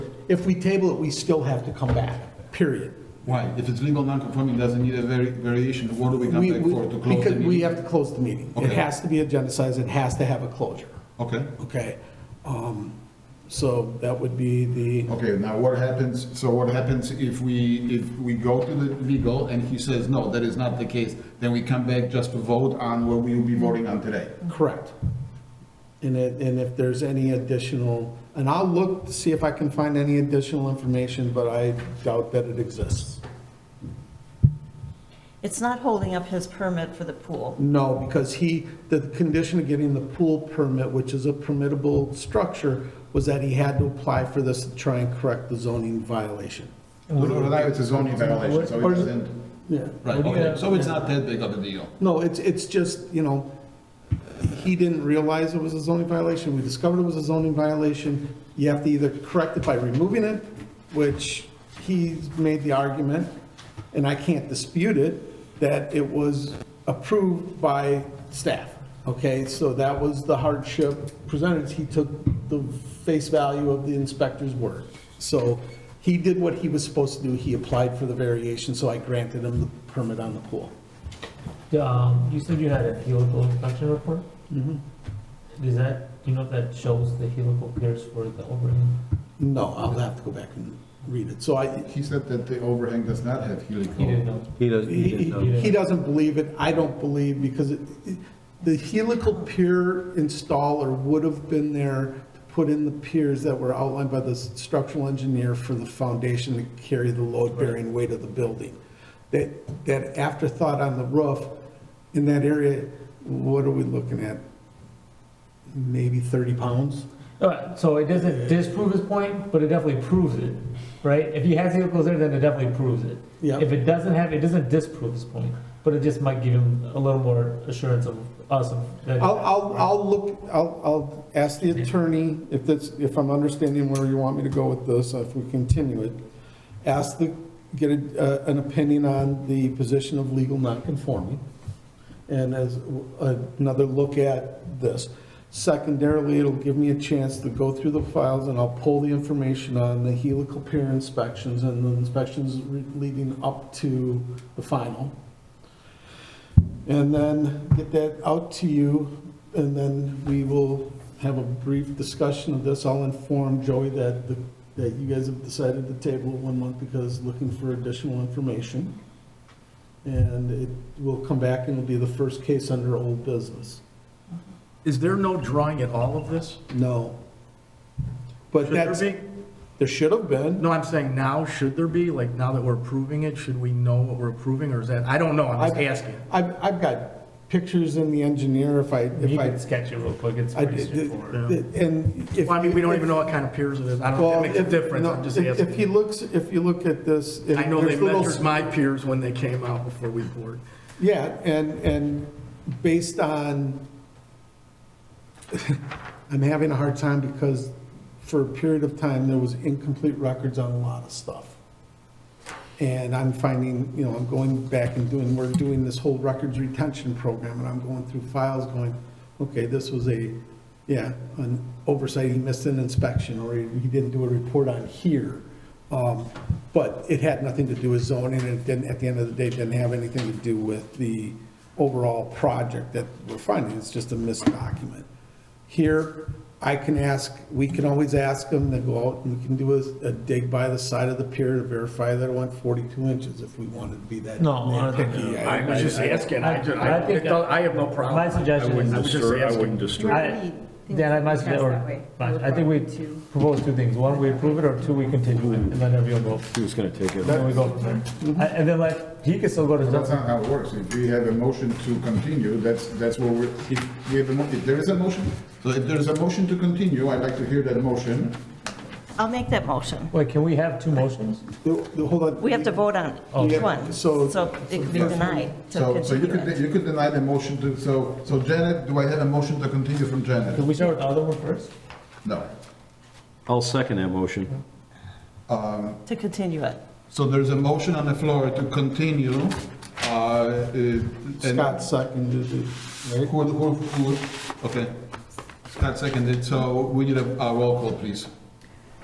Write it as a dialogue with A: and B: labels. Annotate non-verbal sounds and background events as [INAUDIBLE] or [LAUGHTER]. A: If we table it, we still have to come back, period.
B: Why? If it's legal non-conforming, doesn't need a vari- variation, what do we come
A: We-
B: back
A: we-
B: for to close the
A: Because we
B: meeting?
A: have to close the meeting. It
B: Okay.
A: has to be agendized, it has to have a closure,
B: Okay,
A: okay? Um, So that would be the,
B: okay, now what happens, so what happens if we, if we go to the legal and he says, no, that is not the case, then we come back just to vote on what we will be voting on today?
A: correct. And it, and if there's any additional, and I'll look to see if I can find any additional information, but I doubt that it exists.
C: It's not holding up his permit for the pool.
A: No, because he, the condition of getting the pool permit, which is a permittable structure, was that he had to apply for this to try and correct the zoning violation.
B: Well, now it's a zoning violation, so
A: Or
B: it
A: is it-
B: doesn't,
A: Yeah.
B: right, okay, so it's not that big of a deal.
A: No, it's, it's just, you know, he didn't realize it was a zoning violation. We discovered it was a zoning violation. You have to either correct it by removing it, which he's made the argument, and I can't dispute it, that it was approved by staff. Okay, so that was the hardship presented. He took the face value of the inspector's word. So he did what he was supposed to do. He applied for the variation, so I granted him the permit on the pool.
D: Um, you said you had a helical inspection report?
A: Mm-hmm.
D: Does that, do you know if that shows the helical piers for the overhang?
A: No, I'll have to go back and read it. So I,
B: He said that the overhang does not have helical.
D: You didn't know?
E: He doesn't, he
A: he,
E: didn't know.
A: he- he doesn't believe it, I don't believe, because it, it- the helical pier installer would have been there to put in the piers that were outlined by the structural engineer for the foundation to carry the load-bearing weight of the building. That, that afterthought on the roof, in that area, what are we looking at? Maybe 30 pounds?
D: Alright, Uh, so it doesn't disprove his point, but it definitely proves it, right? If he has helicals there, then it definitely proves it.
A: Yeah.
D: If it doesn't have, it doesn't disprove his point, but it just might give him a little more assurance of us of that.
A: I'll, I'll, I'll look, I'll, I'll ask the attorney, if that's, if I'm understanding where you want me to go with this, if we continue it, ask the, get a- uh, an opinion on the position of legal nonconforming, and as uh, another look at this. Secondarily, it'll give me a chance to go through the files, and I'll pull the information on the helical pier inspections and the inspections re- leading up to the final, and then get that out to you, and then we will have a brief discussion of this. I'll inform Joey that, the- that you guys have decided to table it one month because looking for additional information. And it will come back and it'll be the first case under old business.
F: Is there no drawing at all of this?
A: No. But
F: Should there
A: that's,
F: be?
A: there should have been.
F: No, I'm saying now, should there be? Like, now that we're approving it, should we know what we're approving, or is that, I don't know, I'm
A: I've-
F: just asking.
A: I've, I've got pictures in the engineer if I, if
D: You
A: I.
D: can sketch it real quick, it's
A: I-
D: pretty straightforward.
A: And if.
F: Well, I mean, we don't even know what kind of piers it is, I don't, know
A: Well,
F: if it makes a
A: if-
F: difference,
A: no,
F: I'm just
A: if- If he
F: asking.
A: looks, if you look at this. if
F: I know
A: there's
F: they
A: little-
F: measured my piers when they came out before we poured.
A: Yeah, and, and based on, [LAUGHS] I'm having a hard time because for a period of time, there was incomplete records on a lot of stuff. And I'm finding, you know, I'm going back and doing, we're doing this whole records retention program, and I'm going through files going, okay, this was a, yeah, an oversight, he missed an inspection, or he he didn't do a report on here. Um, But it had nothing to do with zoning, and it didn't, at the end of the day, didn't have anything to do with the overall project that we're finding, it's just a missed document. Here, I can ask, we can always ask them to go out and we can do a, a dig by the side of the pier to verify that it went 42 inches if we wanted to be that.
D: No, I don't think-
A: nitpicky.
F: I was just asking, I, ju-
D: I- I
F: I,
D: think-
F: picked out- I have no
D: My
F: problem.
G: I
D: suggestion is.
G: wouldn't
F: I was just
G: disturb, I
F: asking.
G: wouldn't disturb.
D: I- Dan, I might,
H: Pass
D: or,
H: that way.
D: I think we propose two things. One, we approve it, or two, we continue it and let everyone go.
E: He was gonna take it.
D: And then we go from there.
H: Mm-hmm.
D: I- And then like, he can still go to
B: That's
D: Johnson.
B: not how it works. If we have a motion to continue, that's, that's what we're, if we have a, mo- if there is a motion, so if there is a motion to continue, I'd like to hear that motion.
C: I'll make that motion.
D: Wait, can we have two motions?
A: The- the- Hold on.
C: We have to vote on
D: Oh.
A: Yeah,
C: each one,
A: so-
C: so it could be denied to
B: So, so you
C: continue
B: could,
C: it.
B: you could deny the motion to, so, so Janet, do I have a motion to continue from Janet?
D: Can we start with the other one first?
B: No.
E: I'll second that motion.
C: To continue it.
B: So there's a motion on the floor to continue, uh, uh, and
A: Scott seconded it.
B: who, who, who, okay. Scott seconded, so we need a, a roll call, please.